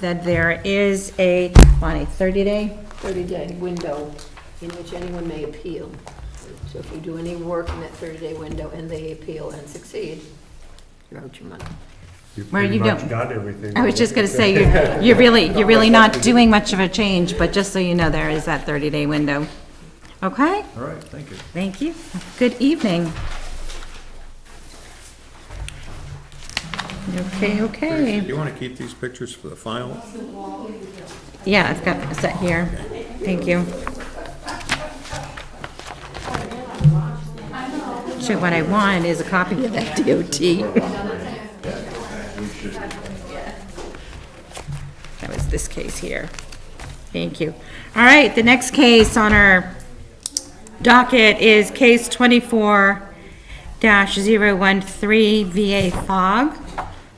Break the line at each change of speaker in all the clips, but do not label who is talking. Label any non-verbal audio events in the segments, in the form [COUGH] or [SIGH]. that there is a, Bonnie, 30-day?
30-day window in which anyone may appeal. So if you do any work in that 30-day window and they appeal and succeed, you're out your money.
You
Where
pretty
you
much
don't-
got everything.
I was just going to say, you're- you're really, you're really not doing much of a change, but just so you know, there is that 30-day window. Okay?
All right, thank you.
Thank you. Good evening. Okay,
Do
okay.
you want to keep these pictures for the file?
Yeah, I've got a set here. Thank you. Shoot, what I want is a copy of that DOT. That was this case here. Thank you. All right, the next case on our docket is case twenty-four 13 VA Fog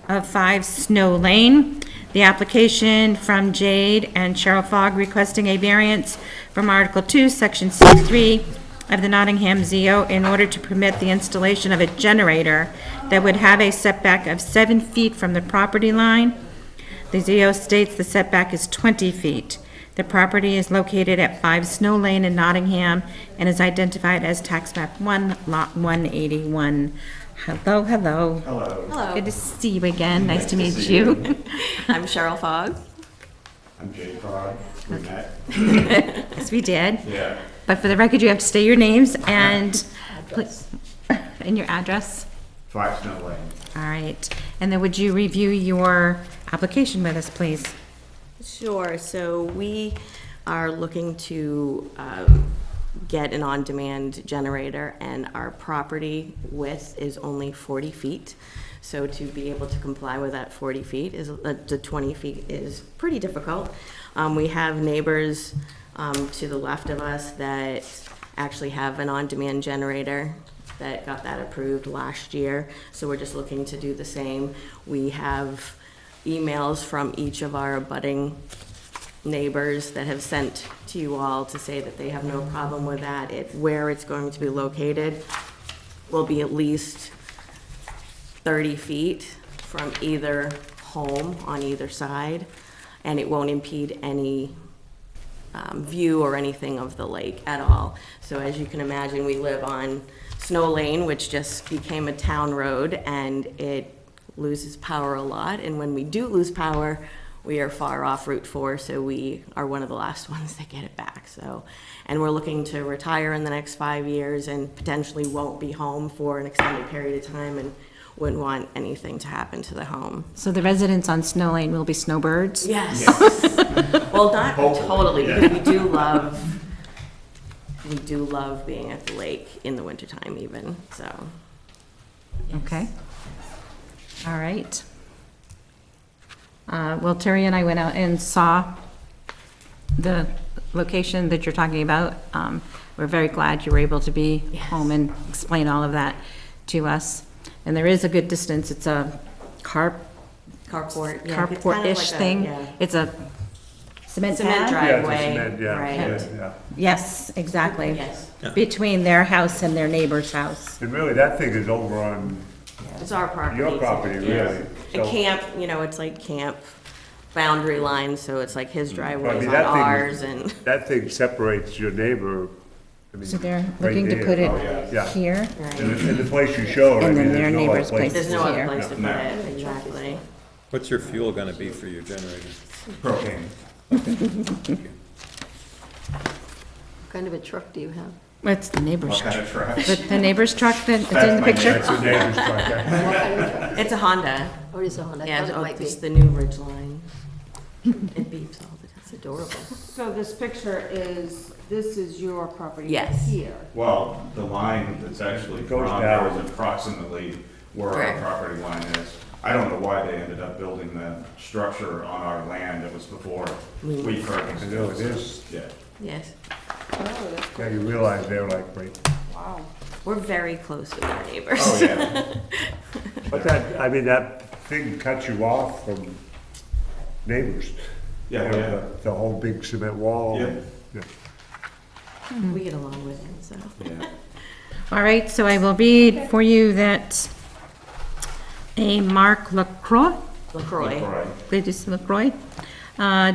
of Five Snow Lane. The application from Jade and Cheryl Fogg requesting a variance from Article Two, Section C-three of the Nottingham ZO in order to permit the installation of a generator that would have a setback of seven feet from the property line the ZO states the setback is 20 feet. The property is located at 5 Snow Lane in Nottingham and is identified as Tax Map 1, Lot 181. Hello, hello.
Hello,
Good to see you again. Nice to meet you. [LAUGHS]
I'm Cheryl Fogg.
I'm Jay Frog. We met.
Yes, we did.
Yeah.
But for the record, you have to state your names and, [LAUGHS] and your address.
Five Snow Lane.
All right. And then would you review your application with us, please?
Sure, so we are looking to um, get an on-demand generator, and our property width is only 40 feet. So to be able to comply with that 40 feet is, uh, the 20 feet is pretty difficult. Um, We have neighbors um, to the left of us that actually have an on-demand generator that got that approved last year, so we're just looking to do the same. We have emails from each of our abutting neighbors that have sent to you all to say that they have no problem with that. It, where it's going to be located will be at least 30 feet from either home on either side, and it won't impede any um, view or anything of the lake at all. So as you can imagine, we live on Snow Lane, which just became a town road, and it loses power a lot. And when we do lose power, we are far off Route 4, so we are one of the last [LAUGHS] ones that get it back, so. And we're looking to retire in the next five years and potentially won't be home for an extended period of time and wouldn't want anything to happen to the home.
So the residents on Snow Lane will be snowbirds?
Yes. [LAUGHS] Well, not totally, because we do love, we do love being at the lake in the wintertime even, so.
Okay. All right. Uh, Well, Terry and I went out and saw the location that you're talking about. Um, We're very glad you were able to be home and explain all of that to us. And there is a good distance. It's a carp,
Carport. yeah, it's kind of
carport-ish
like a-
thing.
yeah.
It's a cement
Cement
pad?
Yeah, it's a
driveway.
cement, yeah,
right.
yeah, yeah.
Yes, exactly.
Yes.
Between their house and their neighbor's house.
And really, that thing is over on,
It's our property.
Your property,
so-
really,
Yeah.
so-
And camp, you know, it's like camp boundary line, so it's like his driveway
Mm. I
is
mean,
on
that thing.
ours and. [LAUGHS]
that thing separates your neighbor. I mean,
So they're
right
looking to
there.
put
Oh, yeah.
it
Yeah.
here.
In the- in the place you showed, I
And
mean,
then their
there's no other
neighbor's
place.
There's no other
Here.
place to put it, exactly.
What's your fuel going to be for your generator?
Propane.
What kind of a truck do you have?
That's the neighbor's
What
truck.
kind of trash?
The the neighbor's truck that, it's in
That's
the
my
picture?
neighbor's.
It's a neighbor's truck, yeah. [LAUGHS]
What kind of truck?
It's a Honda.
Oh, it is a Honda. I
Yeah,
thought it
oh,
might be.
it's the new Ridge [LAUGHS] Line. It beeps all the time.
It's adorable.
So this picture is, this is your property?
Yes.
Here.
Well, the line that's actually
Goes
from there
down.
is approximately where
Correct.
our property line is. I don't know why they ended up building that structure on our land that was before we purchased.
I know it is.
Yeah.
Yes,
Oh, that's,
Now you realize they're like, right.
wow.
we're very close with our neighbors.
Oh,
[LAUGHS]
yeah.
But that, I mean, that thing cuts you off from neighbors.
Yeah,
You know,
yeah.
the- The whole big cement wall.
Yeah.
Yeah.
We get along with it, so.
Yeah.
All right, so I will read for you that a Mark LaCroix,
LaCroix.
Right.
Gladys LaCroix, Uh,